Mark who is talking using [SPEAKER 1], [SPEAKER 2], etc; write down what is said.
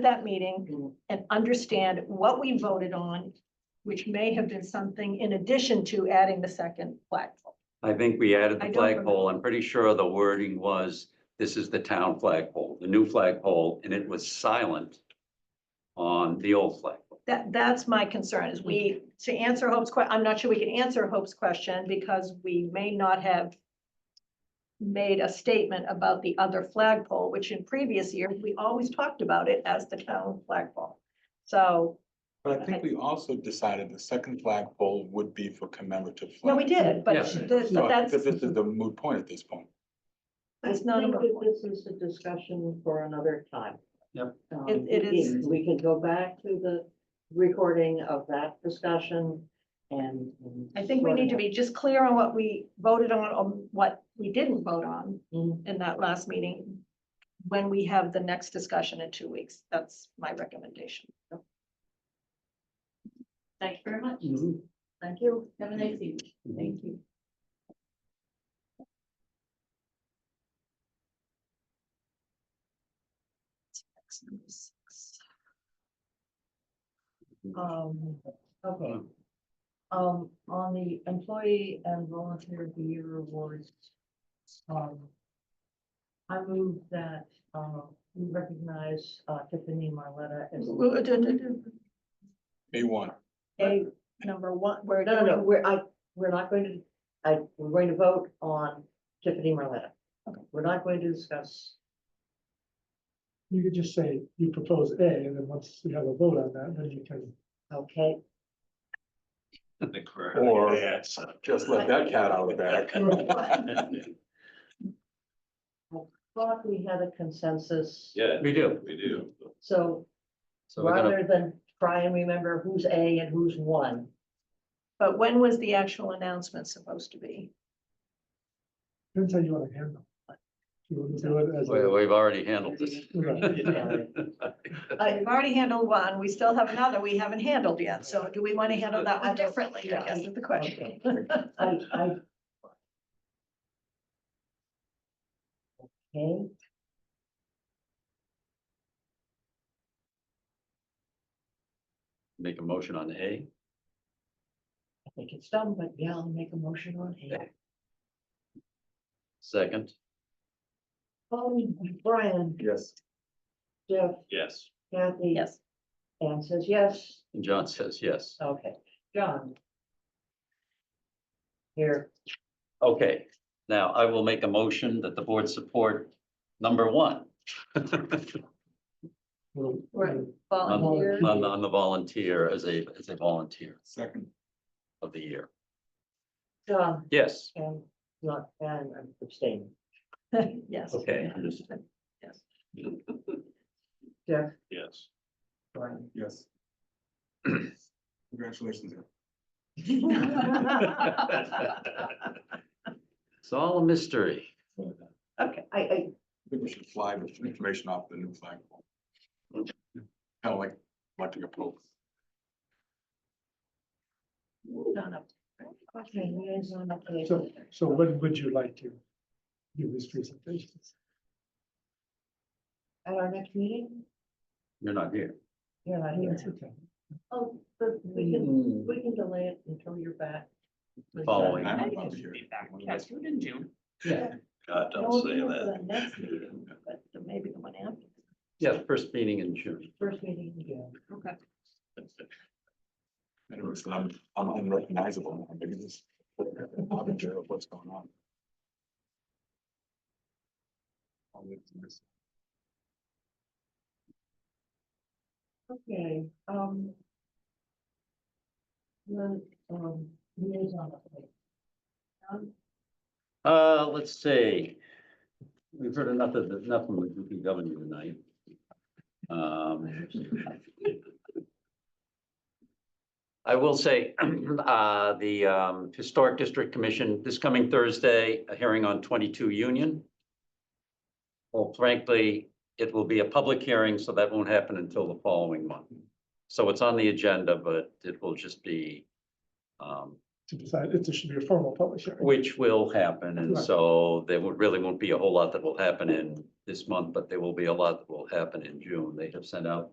[SPEAKER 1] that meeting and understand what we voted on, which may have been something in addition to adding the second flagpole.
[SPEAKER 2] I think we added
[SPEAKER 1] I
[SPEAKER 2] the
[SPEAKER 1] don't
[SPEAKER 2] flagpole. I'm pretty sure the wording was, this is the town flagpole, the new flagpole, and it was silent on the old flagpole.
[SPEAKER 1] That, that's my concern is we, to answer Hope's que, I'm not sure we can answer Hope's question because we may not have made a statement about the other flagpole, which in previous years, we always talked about it as the town flagpole. So,
[SPEAKER 3] But I think we also decided the second flagpole would be for commemorative.
[SPEAKER 1] no, we
[SPEAKER 3] flags.
[SPEAKER 1] did, but
[SPEAKER 2] Yes.
[SPEAKER 1] the-
[SPEAKER 3] So
[SPEAKER 1] but
[SPEAKER 3] I think
[SPEAKER 1] that's,
[SPEAKER 3] that this is the moot point at this point.
[SPEAKER 4] I
[SPEAKER 1] that's not. a
[SPEAKER 4] think
[SPEAKER 1] vote.
[SPEAKER 4] that This is a discussion for another time.
[SPEAKER 2] Yep.
[SPEAKER 4] Um,
[SPEAKER 1] It- it
[SPEAKER 4] we-
[SPEAKER 1] is-
[SPEAKER 4] We can go back to the recording of that discussion and. and
[SPEAKER 1] I think we
[SPEAKER 4] sort
[SPEAKER 1] need to
[SPEAKER 4] of-
[SPEAKER 1] be just clear on what we voted on, on what we didn't vote on
[SPEAKER 4] Mm,
[SPEAKER 1] in that last meeting. When we have the next discussion in two weeks, that's my recommendation.
[SPEAKER 5] Thank you very much.
[SPEAKER 4] mhm.
[SPEAKER 5] Thank you. Have a nice evening.
[SPEAKER 4] Thank you. Um, okay. Um, on the employee and volunteer of the year awards. Um. I move that, uh, we recognize uh, Tiffany Marletta as.
[SPEAKER 1] We'll do- do- do-
[SPEAKER 3] A one,
[SPEAKER 1] A number one, we're
[SPEAKER 4] No, no, no,
[SPEAKER 1] doing,
[SPEAKER 4] we're, I, we're not going to, I, we're going to vote on Tiffany Marletta.
[SPEAKER 1] Okay.
[SPEAKER 4] We're not going to discuss,
[SPEAKER 6] You could just say you propose A, and then once you have a vote on that, then you can.
[SPEAKER 4] okay?
[SPEAKER 3] or just let that cat out of the bag.
[SPEAKER 4] Thought we had a consensus.
[SPEAKER 7] Yeah,
[SPEAKER 2] We do.
[SPEAKER 7] we do.
[SPEAKER 4] So
[SPEAKER 2] So we're gonna,
[SPEAKER 4] rather than try and remember who's A and who's one,
[SPEAKER 1] but when was the actual announcement supposed to be?
[SPEAKER 6] Depends how you want to handle. it. You want to do it as.
[SPEAKER 2] we-
[SPEAKER 6] a-
[SPEAKER 2] we've already handled this.
[SPEAKER 6] Right.
[SPEAKER 1] Uh, We've already handled one, we still have another we haven't handled yet, so do we want to handle that one differently, I guess is the question.
[SPEAKER 4] I, I. Okay.
[SPEAKER 2] Make a motion on A.
[SPEAKER 4] I think it's done, but yeah, I'll make a motion on it.
[SPEAKER 2] Second,
[SPEAKER 4] Oh, Brian,
[SPEAKER 3] Yes.
[SPEAKER 4] Jeff,
[SPEAKER 7] Yes,
[SPEAKER 4] Kathy.
[SPEAKER 1] Yes,
[SPEAKER 4] Anne says yes.
[SPEAKER 2] and John says yes.
[SPEAKER 4] Okay, John. Here,
[SPEAKER 2] Okay, now I will make a motion that the board support number one
[SPEAKER 6] Well,
[SPEAKER 1] Right. volunteer,
[SPEAKER 6] Volunteer.
[SPEAKER 2] on, on the volunteer as a, as a volunteer
[SPEAKER 3] Second,
[SPEAKER 2] of the year.
[SPEAKER 4] John,
[SPEAKER 2] Yes,
[SPEAKER 4] and not, and I'm abstaining.
[SPEAKER 1] yes.
[SPEAKER 2] okay, understood.
[SPEAKER 4] Jeff,
[SPEAKER 7] yes.
[SPEAKER 4] Brian.
[SPEAKER 3] yes. Congratulations. Ed.
[SPEAKER 2] It's all a mystery.
[SPEAKER 4] Okay, I, I,
[SPEAKER 3] I think we should fly with some information off the new flagpole. Kind of like electing a pope.
[SPEAKER 4] John, up. Okay, liaison update.
[SPEAKER 6] So, so when would you like to give these presentations?
[SPEAKER 4] At our next meeting,
[SPEAKER 2] You're not here.
[SPEAKER 4] you're not here.
[SPEAKER 6] That's okay.
[SPEAKER 4] Oh, but we can, we can delay it until you're back.
[SPEAKER 2] Following.
[SPEAKER 3] I'm
[SPEAKER 5] I
[SPEAKER 3] about
[SPEAKER 5] think
[SPEAKER 3] to
[SPEAKER 5] it
[SPEAKER 3] hear
[SPEAKER 5] should be back.
[SPEAKER 3] it.
[SPEAKER 5] Yes, we're in June.
[SPEAKER 7] God,
[SPEAKER 4] No,
[SPEAKER 7] don't say
[SPEAKER 4] no,
[SPEAKER 7] that.
[SPEAKER 4] the Next meeting,
[SPEAKER 1] But maybe the one after.
[SPEAKER 2] Yeah, the first meeting in June.
[SPEAKER 4] first meeting in June.
[SPEAKER 1] Okay.
[SPEAKER 3] Anyway, so I'm, I'm unrecognizable. now because I'm in jail, what's going on? I'll leave this.
[SPEAKER 4] Okay, um. The, um, liaison update. Um,
[SPEAKER 2] Uh, let's see. We've heard enough of, enough from the DPW tonight. Um. I will say, uh, the, um, Historic District Commission, this coming Thursday, a hearing on twenty-two Union. Well, frankly, it will be a public hearing, so that won't happen until the following month. So it's on the agenda, but it will just be, um,
[SPEAKER 6] To decide, it should be a formal public hearing.
[SPEAKER 2] which will happen, and
[SPEAKER 6] Right.
[SPEAKER 2] so there would, really won't be a whole lot that will happen in this month, but there will be a lot that will happen in June. They have sent out